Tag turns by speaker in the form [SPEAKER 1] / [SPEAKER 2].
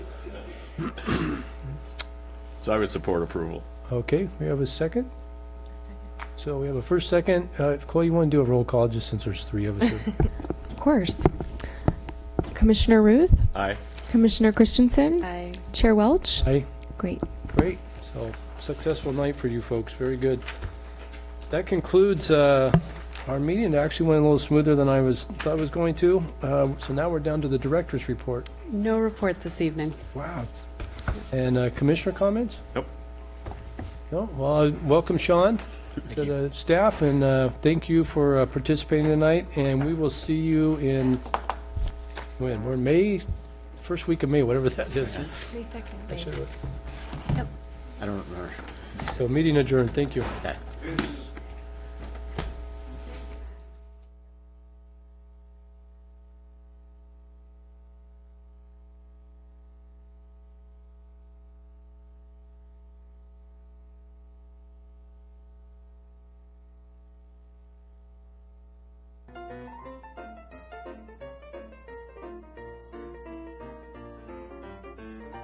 [SPEAKER 1] So I would support approval.
[SPEAKER 2] Okay, we have a second? So we have a first, second. Uh, Chloe, you want to do a roll call, just since there's three of us here?
[SPEAKER 3] Of course. Commissioner Ruth,
[SPEAKER 1] Aye.
[SPEAKER 3] Commissioner Christensen,
[SPEAKER 4] I
[SPEAKER 3] Chair Welch.
[SPEAKER 2] Aye,
[SPEAKER 3] Great.
[SPEAKER 2] great. So, successful night for you folks, very good. That concludes uh, our meeting. It actually went a little smoother than I was, thought it was going to. Uh, So now we're down to the director's report.
[SPEAKER 4] No report this evening.
[SPEAKER 2] Wow. And uh, commissioner comments?
[SPEAKER 1] Nope.
[SPEAKER 2] No, well, uh, welcome Sean to the staff, and uh, thank you for uh, participating tonight, and we will see you in, when, we're in May, first week of May, whatever that is.
[SPEAKER 4] May second.
[SPEAKER 2] I should have-
[SPEAKER 5] I don't remember.
[SPEAKER 2] So, meeting adjourned, thank you.